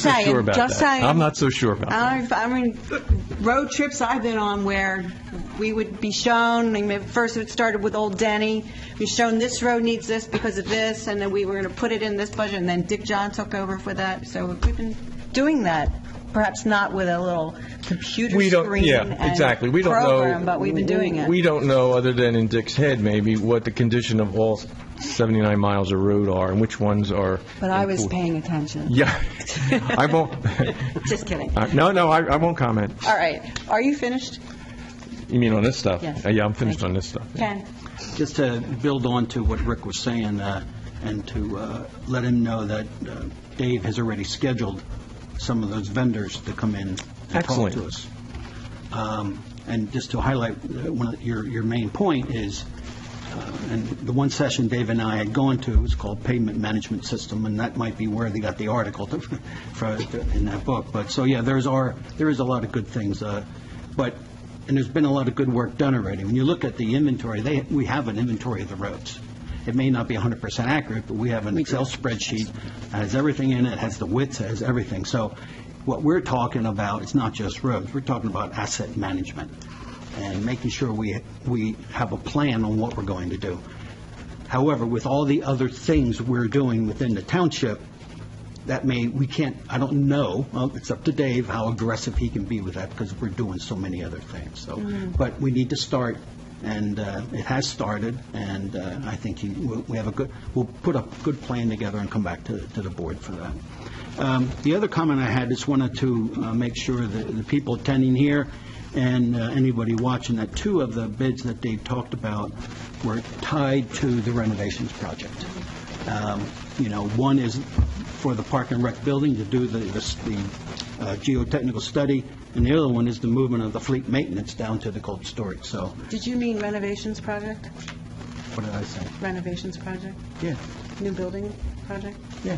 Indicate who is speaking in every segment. Speaker 1: so
Speaker 2: saying,
Speaker 1: sure about that.
Speaker 2: just saying.
Speaker 1: I'm not so sure about that.
Speaker 2: I've, I mean, road trips I've been on where we would be shown, I mean, first it started with Old Denny, we shown this road needs this because of this, and then we were going to put it in this budget, and then Dick John took over for that, so we've been doing that, perhaps not with a little computer
Speaker 1: We
Speaker 2: screen
Speaker 1: don't, yeah, exactly. We
Speaker 2: and
Speaker 1: don't know.
Speaker 2: program, but we've been doing it.
Speaker 1: We don't know, other than in Dick's head maybe, what the condition of all 79 miles of road are and which ones are.
Speaker 2: But I was
Speaker 1: improved.
Speaker 2: paying attention.
Speaker 1: Yeah. I won't,
Speaker 2: Just kidding.
Speaker 1: I- no, no, I I won't comment.
Speaker 2: All right, are you finished,
Speaker 1: You mean on this stuff?
Speaker 2: Yes.
Speaker 1: Uh, Yeah, I'm finished on this stuff.
Speaker 2: Ken?
Speaker 3: Just to build on to what Rick was saying, uh, and to uh, let him know that uh, Dave has already scheduled some of those vendors to come in and talk
Speaker 1: Excellent.
Speaker 3: to us. Um, And just to highlight, uh, one of your, your main point is, uh, and the one session Dave and I had gone to was called Pavement Management System, and that might be where they got the article to- for, in that book. But, so, yeah, there's are, there is a lot of good things, uh, but, and there's been a lot of good work done already. When you look at the inventory, they, we have an inventory of the roads. It may not be 100% accurate, but we have an Excel spreadsheet that has everything in it, has the widths, has everything. So what we're talking about, it's not just roads, we're talking about asset management and making sure we, we have a plan on what we're going to do. However, with all the other things we're doing within the township, that may, we can't, I don't know, well, it's up to Dave how aggressive he can be with that, because we're doing so many other things, so, but we need to start, and uh, it has started, and uh, I think he- we we have a good, we'll put a good plan together and come back to, to the board for that. Um, The other comment I had, just wanted to uh, make sure that the people attending here and uh, anybody watching, that two of the bids that Dave talked about were tied to the renovations project. Um, You know, one is for the Park and Rec building to do the the s- the, uh, geotechnical study, and the other one is the movement of the fleet maintenance down to the cold storage. So,
Speaker 2: Did you mean renovations project?
Speaker 3: what did I say?
Speaker 2: Renovations project?
Speaker 3: Yeah,
Speaker 2: New building project?
Speaker 3: yeah.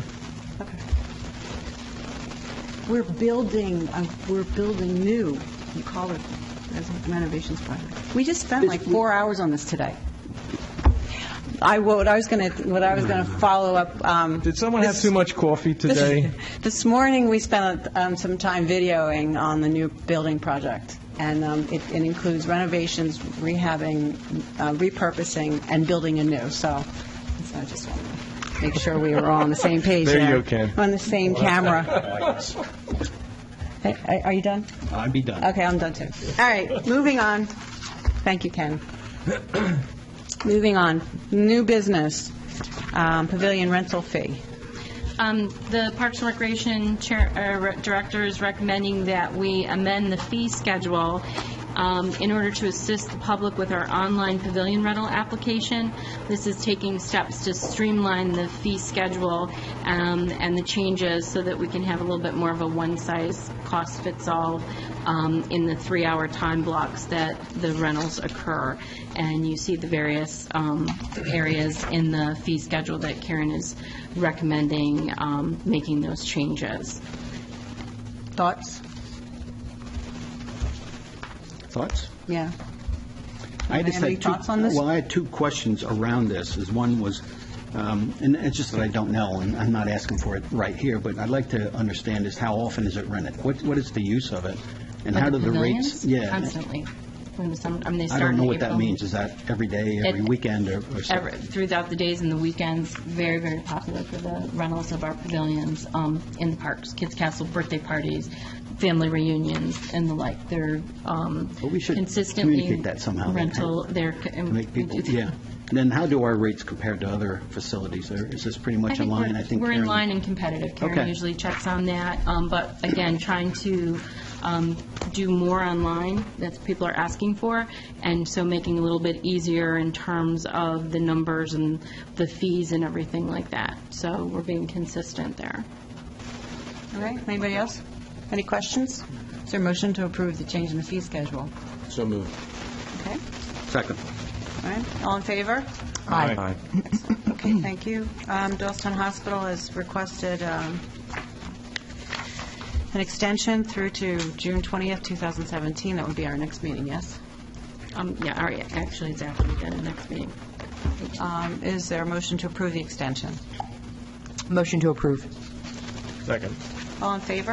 Speaker 2: Okay. We're building, uh, we're building new, you call it as a renovations project. We just spent like four hours on this today. I, what I was going to, what I was going to follow up. um,
Speaker 1: Did someone have
Speaker 2: this-
Speaker 1: too much coffee
Speaker 2: this-
Speaker 1: today?
Speaker 2: This morning, we spent um, some time videoing on the new building project, and um, it it includes renovations, rehabbing, uh, repurposing, and building anew, so so I just want to make sure we were all on the same page
Speaker 1: There
Speaker 2: there.
Speaker 1: you go, Ken.
Speaker 2: On the same camera. Hey, Are you done?
Speaker 3: I'd be done.
Speaker 2: Okay, I'm done too. All right, moving on. Thank you, Ken. Moving on, new business, um, pavilion rental fee.
Speaker 4: Um, The Parks and Recreation Chair- uh, Re- Director is recommending that we amend the fee schedule um, in order to assist the public with our online pavilion rental application. This is taking steps to streamline the fee schedule um, and the changes so that we can have a little bit more of a one-size-cost-fits-all um, in the three-hour time blocks that the rentals occur. And you see the various um, areas in the fee schedule that Karen is recommending um, making those changes.
Speaker 2: Thoughts?
Speaker 3: Thoughts?
Speaker 2: Yeah.
Speaker 3: I just
Speaker 2: Any
Speaker 3: had two-
Speaker 2: thoughts on this?
Speaker 3: Well, I had two questions around this. Is one was, um, and it's just that I don't know, and I'm not asking for it right here, but I'd like to understand is how often is it rented? What What is the use of it? And how do the rates?
Speaker 4: Pavilions? Constantly. When the sum- I mean, they
Speaker 3: I
Speaker 4: start
Speaker 3: don't know
Speaker 4: in
Speaker 3: what that
Speaker 4: April.
Speaker 3: means. Is that every day, every
Speaker 4: It-
Speaker 3: weekend, or or something?
Speaker 4: Ever- Throughout the days and the weekends, very, very popular for the rentals of our pavilions um, in the parks, kids' castle, birthday parties, family reunions, and the like. They're um,
Speaker 3: But we should
Speaker 4: consistently
Speaker 3: communicate that somehow, then,
Speaker 4: rental. They're
Speaker 3: To make people, yeah. Then how do our rates compare to other facilities? Or Is this pretty much in line?
Speaker 4: I think we're, we're in
Speaker 3: Karen-
Speaker 4: line and competitive. Karen
Speaker 3: Okay.
Speaker 4: usually checks on that, um, but again, trying to um, do more online, that's what people are asking for, and so making it a little bit easier in terms of the numbers and the fees and everything like that. So we're being consistent there.
Speaker 2: All right, anybody else? Any questions? Is there a motion to approve the change in the fee schedule?
Speaker 1: So moved.
Speaker 2: Okay,
Speaker 3: Second.
Speaker 2: all right, all in favor?
Speaker 1: Aye.
Speaker 2: Okay, thank you. Um, Doylestown Hospital has requested um, an extension through to June 20th, 2017. That would be our next meeting, yes?
Speaker 4: Um, Yeah, all right, actually, it's after we go to the next meeting.
Speaker 2: Um, Is there a motion to approve the extension?
Speaker 5: Motion to approve.
Speaker 1: Second.
Speaker 2: All in favor?